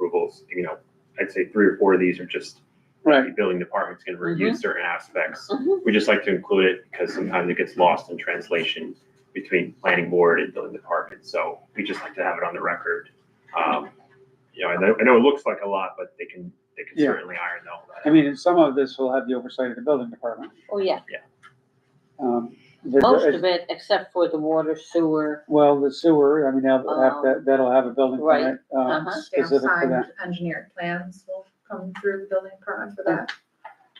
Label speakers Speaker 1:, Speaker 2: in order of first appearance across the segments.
Speaker 1: articles, you know, I'd say three or four of these are just
Speaker 2: Right.
Speaker 1: the building department's gonna review
Speaker 2: Mhm.
Speaker 1: certain aspects.
Speaker 3: Mm-hmm.
Speaker 2: Mhm.
Speaker 1: We just like to include it because sometimes it gets lost in translation between planning board and building department, so we just like to have it on the record. Um, you know, I know, I know it looks like a lot, but they can, they can
Speaker 2: Yeah.
Speaker 1: certainly iron all that.
Speaker 2: I
Speaker 1: out.
Speaker 2: mean, and some of this will have the oversight of the building department.
Speaker 3: Oh, yeah,
Speaker 2: Um, the-
Speaker 3: most of it, except for the water sewer.
Speaker 2: Well, the sewer, I mean, that'll have,
Speaker 3: Um,
Speaker 2: that, that'll have a building
Speaker 3: right.
Speaker 2: permit, um,
Speaker 3: Uh-huh.
Speaker 4: Damn
Speaker 2: specific for
Speaker 4: signed
Speaker 2: that.
Speaker 4: engineered plans will come through building permit for that.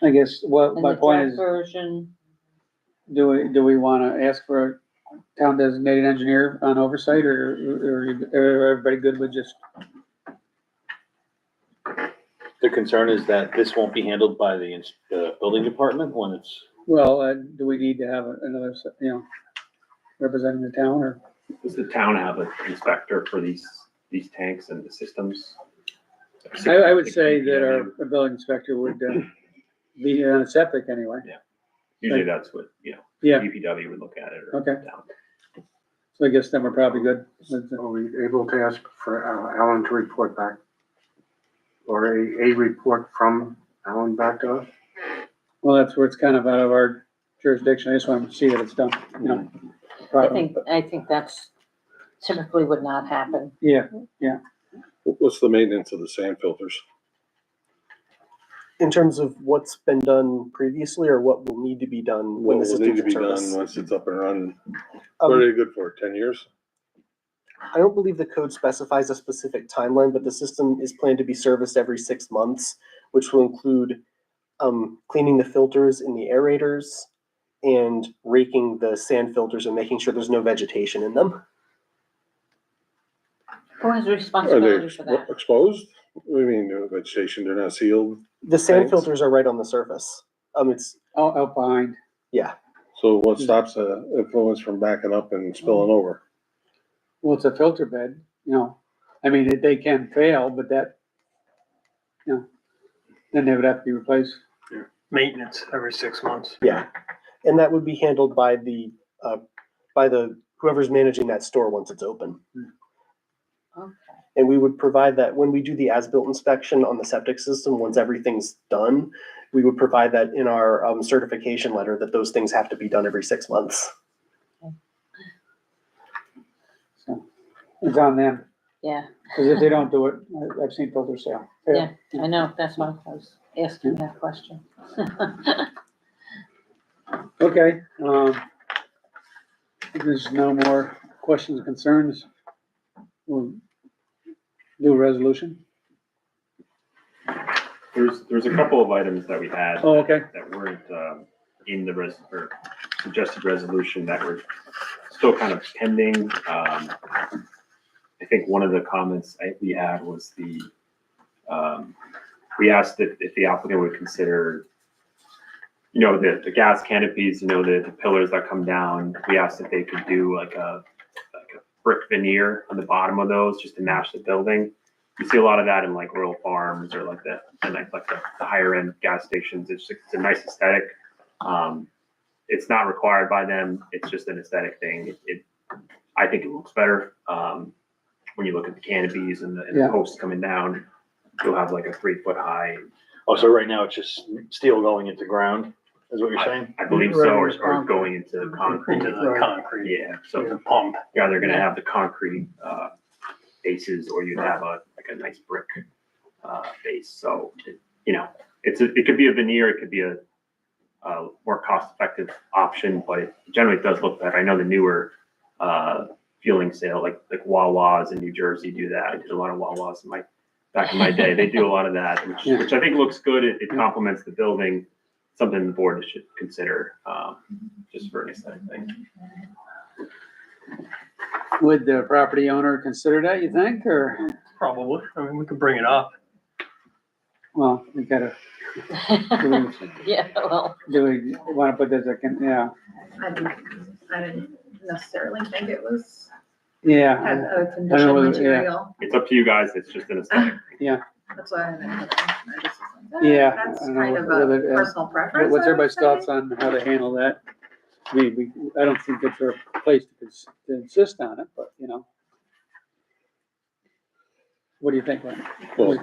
Speaker 2: I guess, what
Speaker 3: and
Speaker 2: my
Speaker 3: the
Speaker 2: point
Speaker 3: draft
Speaker 2: is,
Speaker 3: Version,
Speaker 2: do we, do we wanna ask for a town designated engineer on oversight, or, or you- or everybody good with just?
Speaker 5: The concern is that this won't be handled by the, ins- the building department when it's,
Speaker 2: Well, uh, do we need to have another, you know, representing the town, or?
Speaker 1: Does the town have an inspector for these, these tanks and the systems?
Speaker 2: I, I would say that our our building inspector would, uh, be on a septic anyway,
Speaker 1: Usually that's what, you know,
Speaker 2: Yeah.
Speaker 1: DPW would look at it or.
Speaker 2: Okay.
Speaker 1: down.
Speaker 2: so I guess then we're probably good. with the-
Speaker 6: Are we able to ask for uh, Alan to report back? Or a, a report from Alan back to us?
Speaker 2: Well, that's where it's kind of out of our jurisdiction, I just want to see that it's done, you know.
Speaker 3: I
Speaker 2: properly.
Speaker 3: think, I think that's typically would not happen.
Speaker 2: Yeah,
Speaker 7: What's the maintenance of the sand filters?
Speaker 8: in terms of what's been done previously or what will need to be done
Speaker 7: What
Speaker 8: when the
Speaker 7: will need
Speaker 8: system's
Speaker 7: to
Speaker 8: in
Speaker 7: be done
Speaker 8: service.
Speaker 7: once it's up and running?
Speaker 8: Um,
Speaker 7: What are they good for, ten years?
Speaker 8: I don't believe the code specifies a specific timeline, but the system is planned to be serviced every six months, which will include um, cleaning the filters in the aerators and raking the sand filters and making sure there's no vegetation in them.
Speaker 3: Who has
Speaker 7: Are they
Speaker 3: responsibility for that?
Speaker 7: expo- exposed? What do you mean, no vegetation, they're not sealed?
Speaker 8: The sand
Speaker 7: Thanks.
Speaker 8: filters are right on the surface. Um, it's
Speaker 2: out, out behind,
Speaker 8: yeah,
Speaker 7: So
Speaker 8: Hmm.
Speaker 7: what stops the influence from backing up and spilling over?
Speaker 2: well, it's a filter bed, you know, I mean, they- they can fail, but that, you know, then they would have to be replaced.
Speaker 9: maintenance every six months.
Speaker 8: yeah, and that would be handled by the uh, by the whoever's managing that store once it's open.
Speaker 3: Okay.
Speaker 8: And we would provide that when we do the as-built inspection on the septic system, once everything's done, we would provide that in our um, certification letter that those things have to be done every six months.
Speaker 2: So It's on them,
Speaker 3: Yeah,
Speaker 2: because if they don't do it, I- I've seen filters fail.
Speaker 3: yeah, I know, that's why I was asking that question.
Speaker 2: Okay, um, if there's no more questions, concerns, we'll do a resolution.
Speaker 1: There's, there's a couple of items that we had
Speaker 2: Oh, okay,
Speaker 1: that weren't um, in the res, or suggested resolution that were still kind of pending. Um, I think one of the comments I, we had was the, um, we asked if, if the applicant would consider, you know, the, the gas canopies, you know, the, the pillars that come down. We asked if they could do like a, like a brick veneer on the bottom of those just to match the building. You see a lot of that in like rural farms or like the and like like the, the higher end gas stations. It's just, it's a nice aesthetic. Um, it's not required by them. It's just an aesthetic thing. It, it I think it looks better um, when you look at the canopies and the, and
Speaker 2: Yeah.
Speaker 1: the posts coming down. You'll have like a three foot high.
Speaker 5: oh, so right now it's just steel going into ground, is what you're saying?
Speaker 1: I believe so, or, or
Speaker 3: Right.
Speaker 1: going into concrete.
Speaker 9: Into the concrete,
Speaker 1: Yeah. So
Speaker 9: the pump.
Speaker 1: yeah, they're gonna have the concrete uh, bases, or you'd have a like a nice brick uh, base. So it, you know, it's a, it could be a veneer, it could be a uh, more cost effective option, but it generally does look better. I know the newer uh, fueling sale, like like Wawa's in New Jersey, do that. I did a lot of Wawa's in my back in my day. They do a lot of that, which, which I think looks good. It, it complements the building. Something the board should consider, um, just for an aesthetic thing.
Speaker 2: would the property owner consider that, you think, or,
Speaker 9: Probably. I mean, we could bring it up.
Speaker 2: well, we gotta, do we,
Speaker 3: Yeah, well,
Speaker 2: do we wanna put this, a con- yeah,
Speaker 4: I didn't, I didn't necessarily think it was, had
Speaker 2: yeah,
Speaker 4: a condition
Speaker 2: whether- yeah.
Speaker 4: material,
Speaker 1: It's up to you guys. It's just an aesthetic.
Speaker 4: that's why I didn't. put it in. I just was like, eh,
Speaker 2: Yeah,
Speaker 4: That's
Speaker 2: I don't know
Speaker 4: kind of a
Speaker 2: whether it-
Speaker 4: personal
Speaker 2: what's
Speaker 4: preference. I would
Speaker 2: everybody's
Speaker 4: say.
Speaker 2: thoughts on how to handle that? I mean, we, I don't think it's our place to cons- to insist on it, but, you know. What do you think, Lynn? What do you
Speaker 7: Well,
Speaker 2: think?